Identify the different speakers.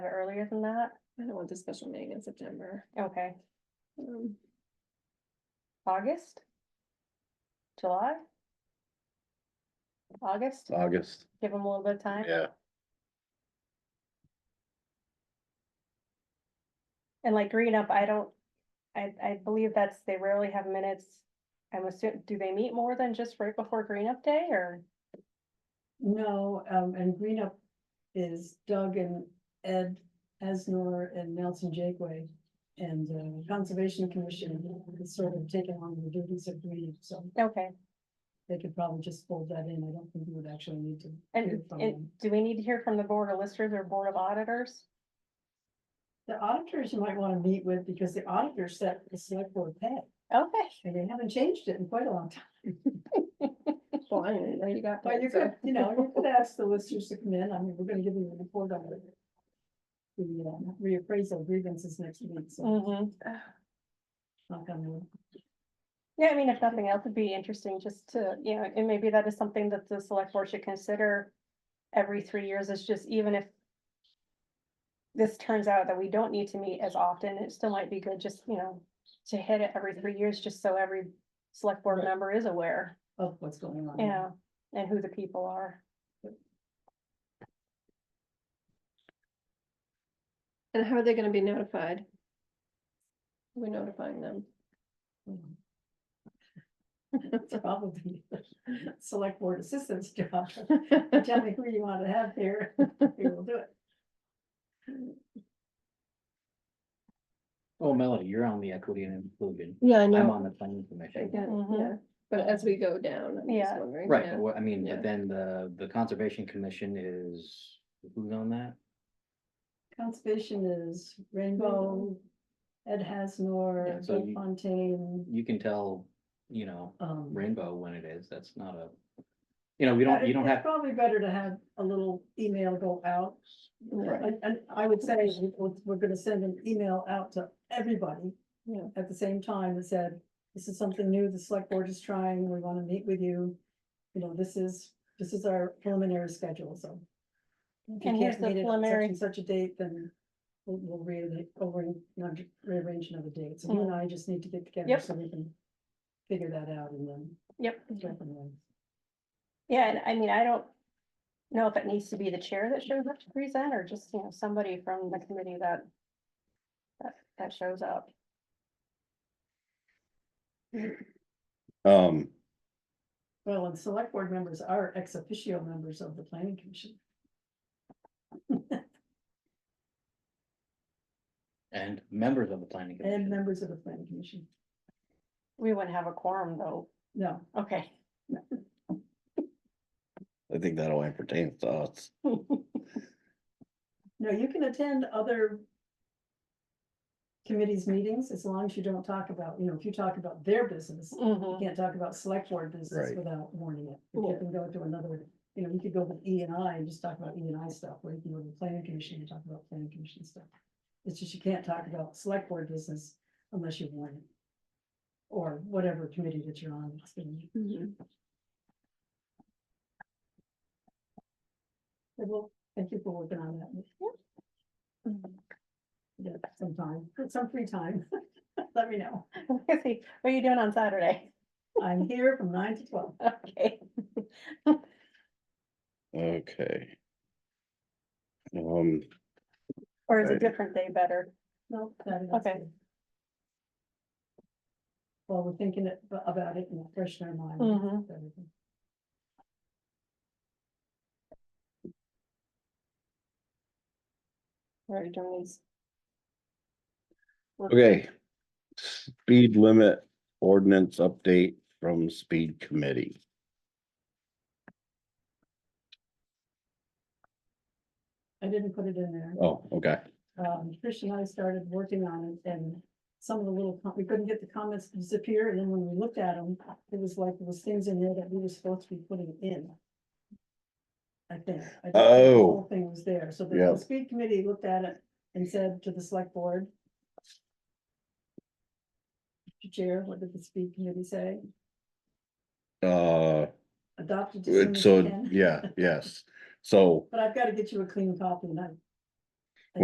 Speaker 1: earlier than that,
Speaker 2: I don't want the special meeting in September.
Speaker 1: okay,
Speaker 2: Um,
Speaker 1: August? July? August,
Speaker 3: August,
Speaker 1: give them a little bit of time,
Speaker 3: yeah,
Speaker 1: and like green up, I don't, I, I believe that's, they rarely have minutes. I'm assuming, do they meet more than just right before green up day, or,
Speaker 4: No, um, and Green Up is Doug and Ed Asnor and Nelson Jakeway. And uh, Conservation Commission has sort of taken on the duties of Green Up, so
Speaker 1: okay,
Speaker 4: they could probably just fold that in. I don't think we would actually need to.
Speaker 1: and,
Speaker 4: hear from
Speaker 1: and
Speaker 4: them.
Speaker 1: do we need to hear from the board of listers or board of auditors?
Speaker 4: The auditors you might want to meet with because the auditors set the select board pay
Speaker 1: Okay,
Speaker 4: and they haven't changed it in quite a long time.
Speaker 2: Well, I didn't know you got.
Speaker 4: But
Speaker 2: that,
Speaker 4: you
Speaker 2: so-
Speaker 4: could, you know, you could ask the listers to come in. I mean, we're gonna give you a report on it. The uh, reappraisal grievances next week, so
Speaker 1: hmm
Speaker 4: knock on wood.
Speaker 1: Yeah, I mean, if nothing else, it'd be interesting just to, you know, and maybe that is something that the select board should consider every three years, is just even if this turns out that we don't need to meet as often, it still might be good just, you know, to hit it every three years, just so every select board
Speaker 4: Right. Mm-hmm.
Speaker 1: member is aware,
Speaker 4: of what's going on.
Speaker 1: you know, and who the people are.
Speaker 2: And how are they gonna be notified? We're notifying them.
Speaker 4: It's probably the select board assistant's job. Tell me who you want to have here, we will do it.
Speaker 5: Oh, Melody, you're on the equity and inclusion.
Speaker 2: Yeah, I
Speaker 5: I'm on the planning commission.
Speaker 2: Yeah,
Speaker 1: Mhm.
Speaker 2: yeah. Mm-hmm. But as we go down. I'm just
Speaker 1: Yeah.
Speaker 2: wondering,
Speaker 5: Right,
Speaker 2: yeah.
Speaker 5: but what- I mean,
Speaker 2: Yeah.
Speaker 5: but then the, the conservation commission is, who's on that?
Speaker 4: Conservation is Rainbow, Ed Hasnor,
Speaker 5: Yeah, so
Speaker 4: Bill
Speaker 5: you-
Speaker 4: Fontaine,
Speaker 5: You can tell, you know,
Speaker 4: um.
Speaker 5: rainbow when it is, that's not a, you know, we don't, you don't
Speaker 4: it's
Speaker 5: have,
Speaker 4: Probably better to have a little email go out,
Speaker 2: Yeah.
Speaker 4: and, and I would say we- we're, we're gonna send an email out to everybody.
Speaker 2: Yeah.
Speaker 4: At the same time that said, this is something new, the select board is trying, we wanna meet with you, you know, this is, this is our preliminary schedule, so. if you
Speaker 1: And here's
Speaker 4: can't
Speaker 1: the
Speaker 4: meet it on such
Speaker 1: preliminary-
Speaker 4: and Such a date, then we'll, we'll rearrange, over, rearrange another date, so you and I just need to get together
Speaker 1: Mm. Yep.
Speaker 4: so we can. Figure that out and then.
Speaker 1: Yep.
Speaker 4: go from there.
Speaker 1: Yeah, and I mean, I don't know if it needs to be the chair that shows up to present, or just, you know, somebody from the committee that that, that shows up.
Speaker 3: um,
Speaker 4: Well, and select board members are ex officio members of the planning commission.
Speaker 5: and members of the planning
Speaker 4: And
Speaker 5: commission.
Speaker 4: members of the planning commission,
Speaker 1: We wouldn't have a quorum though.
Speaker 4: no,
Speaker 1: Okay.
Speaker 3: I think that only pertains to us.
Speaker 4: no, you can attend other. Committees meetings, as long as you don't talk about, you know, if you talk about their business, you
Speaker 1: Mhm.
Speaker 4: can't talk about select board business
Speaker 3: Right.
Speaker 4: without warning it. You
Speaker 2: Yeah.
Speaker 4: can go to another, you know, you could go with E and I and just talk about E and I stuff, or you can go to the planning commission and talk about planning commission stuff. It's just you can't talk about select board business unless you warn it. Or whatever committee that you're on, it's been-
Speaker 2: Mhm.
Speaker 4: Well, thank you for working on that. Yeah, some time, some free time. Let me know.
Speaker 1: Let's see, What are you doing on Saturday?
Speaker 4: I'm here from nine to twelve.
Speaker 1: Okay,
Speaker 3: Okay. Um,
Speaker 1: or is a
Speaker 3: Right.
Speaker 1: different day better?
Speaker 4: No, that is.
Speaker 1: Okay.
Speaker 4: good. Well, we're thinking it- about it and freshen our mind.
Speaker 1: Mhm.
Speaker 4: with everything.
Speaker 1: Or doing these?
Speaker 3: okay. Speed limit ordinance update from speed committee.
Speaker 4: I didn't put it in there.
Speaker 3: Oh, okay.
Speaker 4: Um, Trish and I started working on it and some of the little, com- we couldn't get the comments to disappear. And then when we looked at them, it was like there was things in there that we were supposed to be putting in. I think. I think the
Speaker 3: Oh.
Speaker 4: Whole thing was there. So the-
Speaker 3: Yeah.
Speaker 4: the speed committee looked at it and said to the select board. "Mr. Chair, what did the speed committee say?
Speaker 3: Uh,
Speaker 4: Adopted. to soon as
Speaker 3: so,
Speaker 4: can."
Speaker 3: yeah, yes. So
Speaker 4: But I've got to get you a clean copy and I